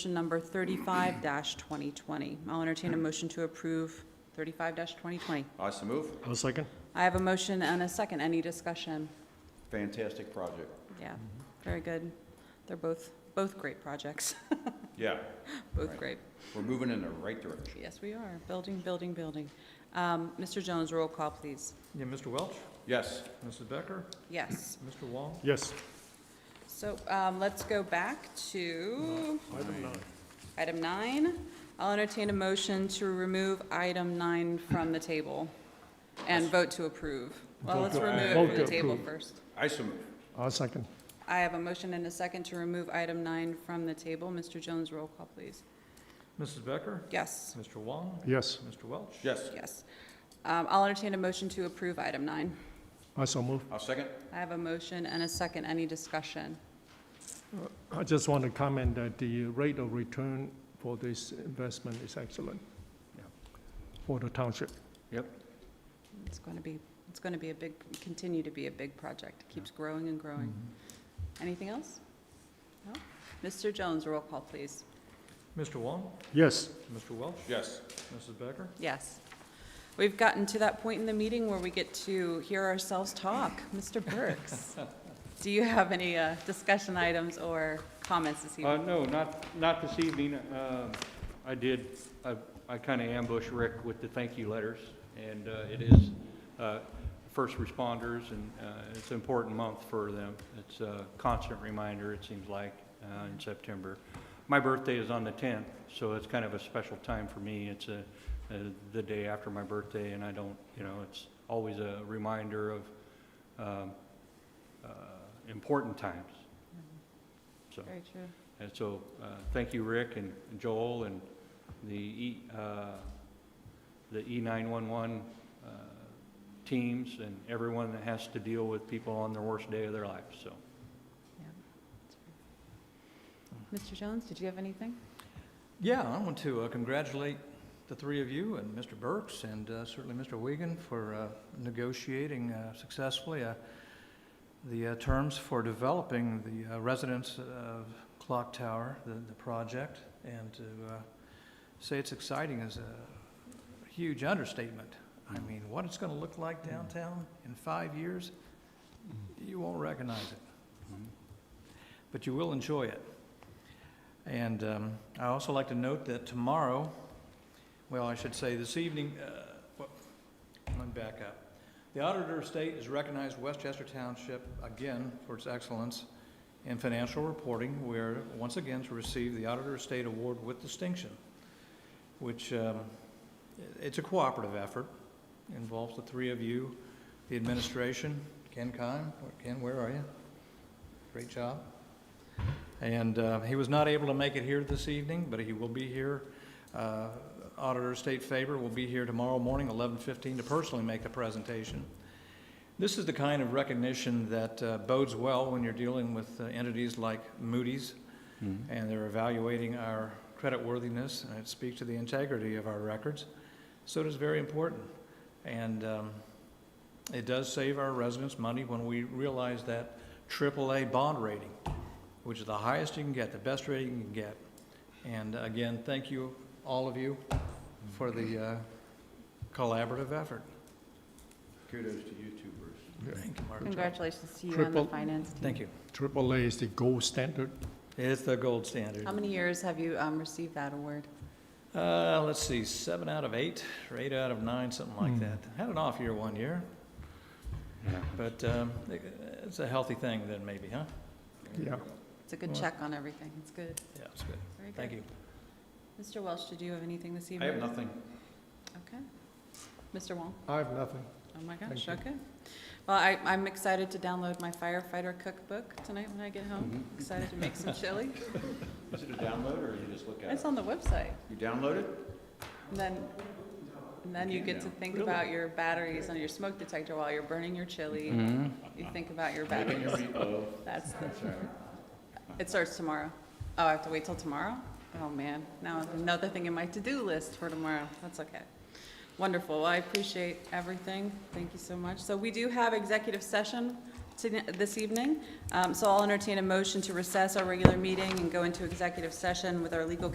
Resolution number thirty-five twenty twenty. I'll entertain a motion to approve thirty-five twenty twenty. I so move. I'll second. I have a motion and a second. Any discussion? Fantastic project. Yeah, very good. They're both, both great projects, Yeah, both Right. great. we're moving in the right direction. Yes, we are. Building, building, building. Um, Mr. Jones, roll call, please. Yeah, Mr. Welch, Yes, Mrs. Becker, Yes. Mr. Wong, Yes. So um, let's go back to Item nine. item nine. I'll entertain a motion to remove item nine from the table and vote to approve. Well, Vote let's to- remove it vote from to the table approve. first. I so move. I'll second. I have a motion and a second to remove item nine from the table. Mr. Jones, roll call, please. Mrs. Becker, Yes, Mr. Wong, Yes. Mr. Welch. Yes, yes. Um, I'll entertain a motion to approve item nine. I so move. I'll second. I have a motion and a second. Any discussion? I just want to comment that the rate of return for this investment is excellent Yeah. for the township. It's going to be, it's going to be a big, continue to be a big project. It Keeps growing and Mm-hmm. growing. Anything else? No? Mr. Jones, roll call, please. Mr. Wong, Yes. Mr. Welch, Yes, Mrs. Becker, Yes. We've gotten to that point in the meeting where we get to hear ourselves talk. Mr. Burks, do you have any uh, discussion items or comments this Uh, evening? no, not, not this evening. Um, I did, I, I kind of ambushed Rick with the thank you letters, and uh, it is uh, first responders, and uh, it's an important month for them. It's a constant reminder, it seems like, uh, in September. My birthday is on the 10th, so it's kind of a special time for me. It's a, uh, the day after my birthday, and I don't, you know, it's always a reminder of um, uh, important times, Mm-hmm. so. Very true. And so, uh, thank you, Rick and Joel, and the E, uh, the E E911 uh, teams, and everyone that has to deal with people on their worst day of their life, so. Yeah. Hmm. Mr. Jones, did you have anything? Yeah, I want to uh, congratulate the three of you and Mr. Burks and uh, certainly Mr. Wiegand for uh, negotiating uh, successfully uh, the uh, terms for developing the uh, residents of Clock Tower, the, the project, and to uh, say it's exciting is a huge understatement. I mean, what it's going to look like downtown in five years, you won't recognize it, but you will enjoy it. And um, I also like to note that tomorrow, well, I should say this evening, uh, what- let me back up. The Auditor of State has recognized Westchester Township again for its excellence in financial reporting. We're once again to receive the Auditor of State Award with distinction, which, um, it's a cooperative effort, involves the three of you, the administration, Ken Kime, Ken, where are you? Great job. And uh, he was not able to make it here this evening, but he will be here. Uh, Auditor State Faber will be here tomorrow morning, 11:15, to personally make the presentation. This is the kind of recognition that uh, bodes well when you're dealing with uh, entities like Moody's, and they're evaluating our creditworthiness, and it speaks to the integrity of our records. So it is very important. And um, it does save our residents money when we realize that AAA bond rating which is the highest you can get, the best rating you can get. And uh, again, thank you, all of you, for the uh, collaborative effort. kudos to you too, Bruce. Thank you, Mark. Congratulations to you on the Triple- finance team. Thank you. Triple A is the gold standard. It's the gold standard. How many years have you um, received that award? Uh, let's see, seven out of eight, or eight out of nine, something like Hmm. that. Had an off year one year, but um, it's a healthy thing then maybe, huh? Yeah. It's a good Well- check on everything. It's good. Yeah, it's good. Very good. Thank you. Mr. Welch, did you have anything this I evening? have nothing. Okay. Mr. Wong? I have nothing. Oh my gosh, Thank you. okay. Well, I, I'm excited to download my firefighter cookbook tonight when I get home. Mm-hmm. Excited to make some chili. Is it a download or you just look at It's it? on the website. You download it? And then, and then you get to think about your batteries on your smoke detector while you're burning your chili. You think about your batteries. Making your meatloaf. That's, the- That's right. it starts tomorrow. Oh, I have to wait till tomorrow? Oh, man, now another thing in my to-do list for tomorrow. That's okay. Wonderful, Well, I appreciate everything. Thank you so much. So we do have executive session to- this evening. Um, So I'll entertain a motion to recess our regular meeting and go into executive session with our legal